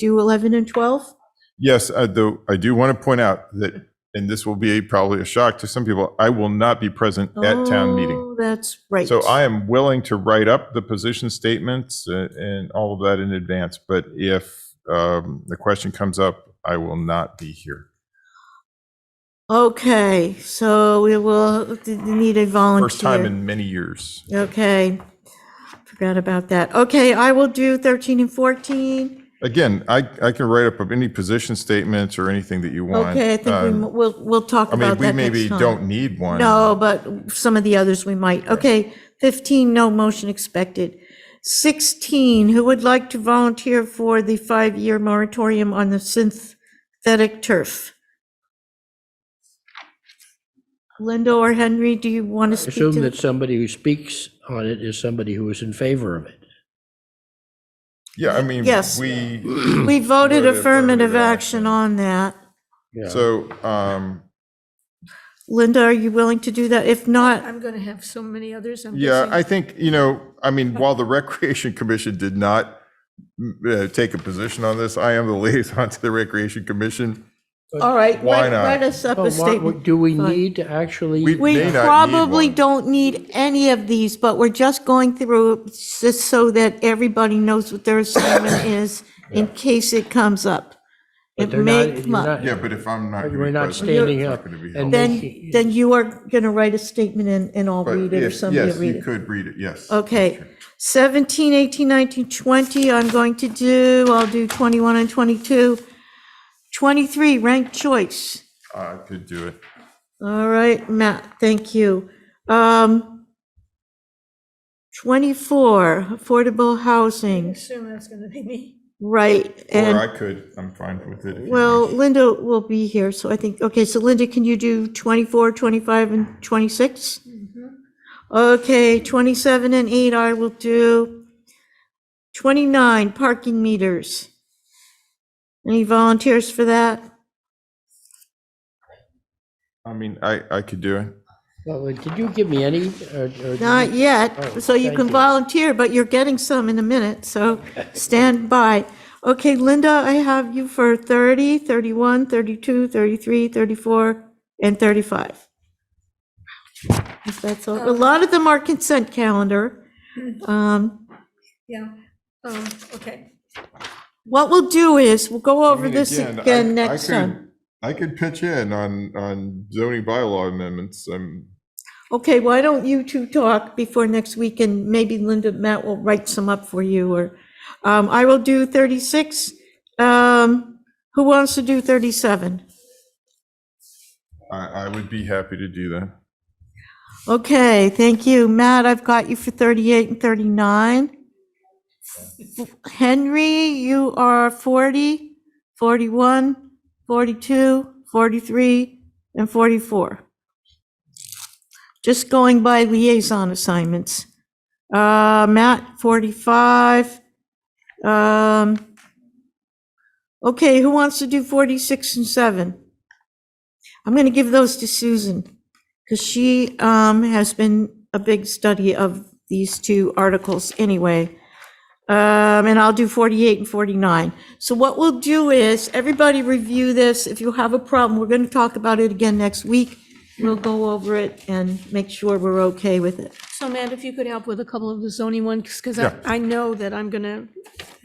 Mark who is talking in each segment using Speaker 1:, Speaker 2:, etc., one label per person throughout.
Speaker 1: do 11 and 12?
Speaker 2: Yes, I do, I do want to point out that, and this will be probably a shock to some people, I will not be present at town meeting.
Speaker 1: Oh, That's right.
Speaker 2: So I am willing to write up the position statements uh, and all of that in advance, but if um, the question comes up, I will not be here.
Speaker 1: Okay, so we will d- d- need a volunteer.
Speaker 2: First time in many years.
Speaker 1: Okay, forgot about that. Okay, I will do 13 and 14.
Speaker 2: Again, I, I can write up of any position statements or anything that you want.
Speaker 1: Okay, I think we
Speaker 2: Um,
Speaker 1: m- we'll, we'll talk
Speaker 2: I mean,
Speaker 1: about
Speaker 2: we
Speaker 1: that
Speaker 2: maybe
Speaker 1: next time.
Speaker 2: don't need one.
Speaker 1: No, but some of the others we might. Okay, 15, no motion expected. 16, who would like to volunteer for the five-year moratorium on the synthetic turf? Linda or Henry, do you want to speak to?
Speaker 3: Assume
Speaker 1: the-
Speaker 3: that somebody who speaks on it is somebody who is in favor of it.
Speaker 2: Yeah, I mean,
Speaker 1: Yes.
Speaker 2: we,
Speaker 1: We voted
Speaker 2: Voted affirmative
Speaker 1: affirmative
Speaker 2: action.
Speaker 1: action on that.
Speaker 3: Yeah.
Speaker 2: so, um,
Speaker 1: Linda, are you willing to do that? If not,
Speaker 4: I'm going to have so many others. I'm
Speaker 2: yeah,
Speaker 4: guessing.
Speaker 2: I think, you know, I mean, while the Recreation Commission did not mm, uh, take a position on this, I am the liaison to the Recreation Commission.
Speaker 1: all right,
Speaker 2: Why
Speaker 1: write
Speaker 2: not?
Speaker 1: write us up a
Speaker 3: But what-
Speaker 1: statement.
Speaker 3: do we
Speaker 1: Fine.
Speaker 3: need to actually?
Speaker 2: We-
Speaker 1: We
Speaker 2: may not need
Speaker 1: probably
Speaker 2: one.
Speaker 1: don't need any of these, but we're just going through just so that everybody knows what their assignment is in case it comes up.
Speaker 3: but
Speaker 1: It
Speaker 3: they're
Speaker 1: may
Speaker 3: not- you're
Speaker 1: come up.
Speaker 3: not-
Speaker 2: Yeah, but if I'm not. gonna
Speaker 3: We're
Speaker 2: be
Speaker 3: not
Speaker 2: present,
Speaker 3: standing
Speaker 2: it's not
Speaker 3: up
Speaker 2: gonna be
Speaker 3: and
Speaker 2: helpful.
Speaker 1: Then,
Speaker 3: making-
Speaker 1: then you are going to write a statement and, and I'll
Speaker 2: But
Speaker 1: read it or
Speaker 2: if-
Speaker 1: somebody will
Speaker 2: Yes,
Speaker 1: read
Speaker 2: you
Speaker 1: it.
Speaker 2: could read it, yes.
Speaker 1: Okay, 17, 18, 19, 20, I'm going to do, I'll do 21 and 22. 23, ranked choice.
Speaker 2: I could do it.
Speaker 1: All right, Matt, thank you. Um, 24, affordable housing,
Speaker 4: Assume that's going to be me.
Speaker 1: right,
Speaker 2: Or
Speaker 1: and,
Speaker 2: I could, I'm fine with it. if you
Speaker 1: well,
Speaker 2: want.
Speaker 1: Linda will be here, so I think, okay, so Linda, can you do 24, 25, and 26?
Speaker 4: Mm-hmm.
Speaker 1: Okay, 27 and 8 I will do. 29, parking meters. Any volunteers for that?
Speaker 2: I mean, I, I could do it.
Speaker 3: Well, Did you give me any? or- or-
Speaker 1: Not
Speaker 3: Oh,
Speaker 1: yet, so you
Speaker 3: thank
Speaker 1: can
Speaker 3: you.
Speaker 1: volunteer, but you're getting some in a minute, so stand by. Okay, Linda, I have you for 30, 31, 32, 33, 34, and 35. If that's all, a lot of them are consent calendar.
Speaker 2: Mm-hmm.
Speaker 1: Um,
Speaker 4: Yeah. Um, okay.
Speaker 1: What we'll do is, we'll go
Speaker 2: I
Speaker 1: over
Speaker 2: mean,
Speaker 1: this
Speaker 2: I-
Speaker 1: again
Speaker 2: I
Speaker 1: next
Speaker 2: could-
Speaker 1: time.
Speaker 2: I could pitch in on, on zoning bylaw amendments. I'm,
Speaker 1: Okay, why don't you two talk before next week, and maybe Linda, Matt will write some up for you, or, um, I will do 36. Um, who wants to do 37?
Speaker 2: I, I would be happy to do that.
Speaker 1: Okay, thank you. Matt, I've got you for 38 and 39. Henry, you are 40, 41, 42, 43, and 44. Just going by liaison assignments. Uh, Matt, 45. Um, Okay, who wants to do 46 and 7? I'm going to give those to Susan because she um, has been a big study of these two articles anyway. Um, And I'll do 48 and 49. So what we'll do is, everybody review this. If you have a problem, we're going to talk about it again next week. We'll go over it and make sure we're okay with it.
Speaker 4: So Matt, if you could help with a couple of the zoning ones, because
Speaker 2: Yeah.
Speaker 4: I, I know that I'm going to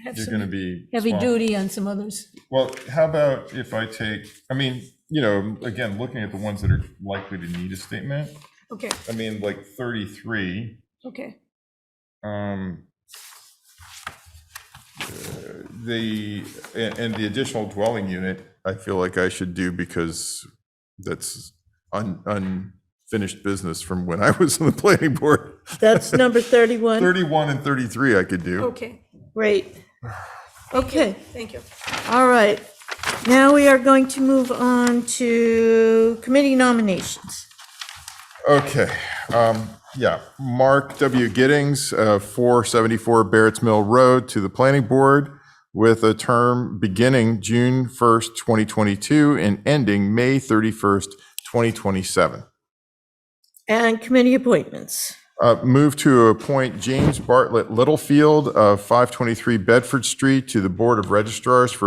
Speaker 4: have
Speaker 2: You're going to
Speaker 4: some
Speaker 2: be.
Speaker 4: heavy
Speaker 2: swamped.
Speaker 4: duty on some others.
Speaker 2: Well, how about if I take, I mean, you know, again, looking at the ones that are likely to need a statement,
Speaker 4: Okay,
Speaker 2: I mean, like 33,
Speaker 4: okay.
Speaker 2: um, uh, the, and and the additional dwelling unit, I feel like I should do because that's un- unfinished business from when I was on the planning board.
Speaker 1: That's number 31.
Speaker 2: 31 and 33 I could do.
Speaker 4: Okay,
Speaker 1: Great. Okay.
Speaker 4: thank you.
Speaker 1: All right, now we are going to move on to committee nominations.
Speaker 2: Okay, um, yeah, Mark W. Giddings, uh, 474 Barrett's Mill Road to the Planning Board with a term beginning June 1st, 2022 and ending May 31st, 2027.
Speaker 1: And committee appointments.
Speaker 2: Uh, Move to appoint James Bartlett Littlefield of 523 Bedford Street to the Board of registrars for